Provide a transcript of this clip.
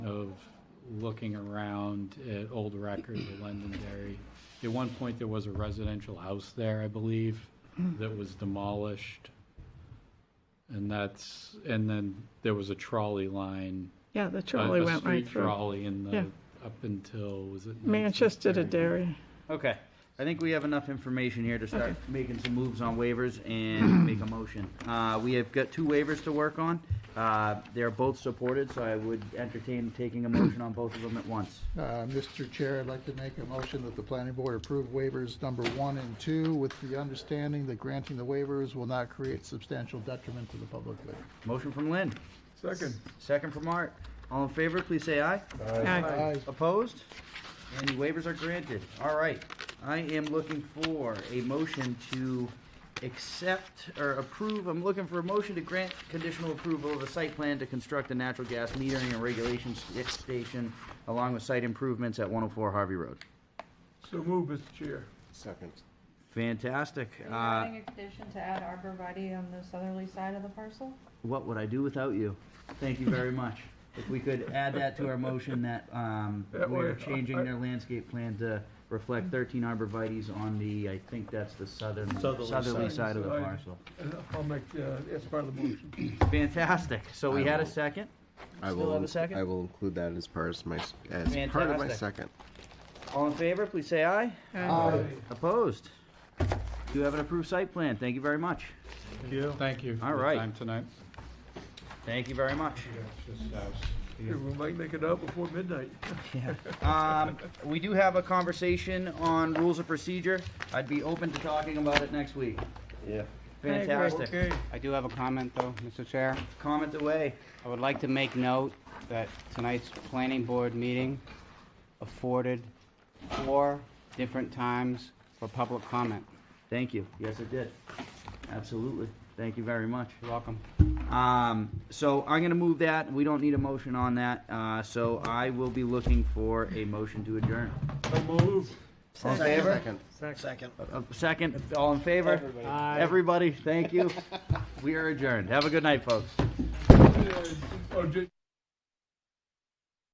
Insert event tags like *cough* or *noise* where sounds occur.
of looking around at old records of Londonderry. At one point, there was a residential house there, I believe, that was demolished. And that's, and then there was a trolley line. Yeah, the a- trolley a went right street through. trolley in the, Yeah. up until, was it? Manchester to 1930? Derry. Okay, I think we have enough information here to start making some moves on waivers and make a motion. Uh, we have got two waivers to work on. Uh, they're both supported, so I would entertain taking a motion on both of them at once. Uh, Mr. Chair, I'd like to make a motion that the planning board approve waivers number one and two with the understanding that granting the waivers will not create substantial detriment to the public good. Motion from Lynn, Second. second from Art. All in favor, please say aye. Aye. Aye. Opposed? And the waivers are granted. All right. I am looking for a motion to accept or approve, I'm looking for a motion to grant conditional approval of a site plan to construct a natural gas metering and regulation st- station along with site improvements at 104 Harvey Road. So move, Mr. Chair. Second. Fantastic. Are Uh, you adding a condition to add arborvitae on the southerly side of the parcel? What would I do without you? Thank you very much. If we could add that to our motion that um, *laughs* That we're way, changing I- their landscape plan to reflect 13 arborvitae's on the, I think that's the southern, Southerly southerly side. side of the Side. parcel. And I'll make, uh, that's part of the motion. Fantastic. So we I had a will- second. I Still will, have a second? I will include that as part of my, s- as part of my Fantastic. second. All in favor, please say aye. Aye. Opposed? You have an approved site plan. Thank you very much. Thank you All for your right. time tonight. Thank you very much. We might make it out before midnight. Um, we do have a conversation on rules of procedure. I'd be open to talking about it next week. Yeah. agree. Fantastic. Okay. I do have a comment, though, Mr. Chair. Comment away. I would like to make note that tonight's planning board meeting afforded four different times for public comment. Thank you. Yes, it did. Absolutely. Thank you very much. You're welcome. Um, so I'm gonna move that. We don't need a motion on that. Uh, so I will be looking for a motion to adjourn. So move. All in favor? Second. Uh, A second, all in favor? Everybody, thank you. We are adjourned. Have a good night, folks. Oh, just.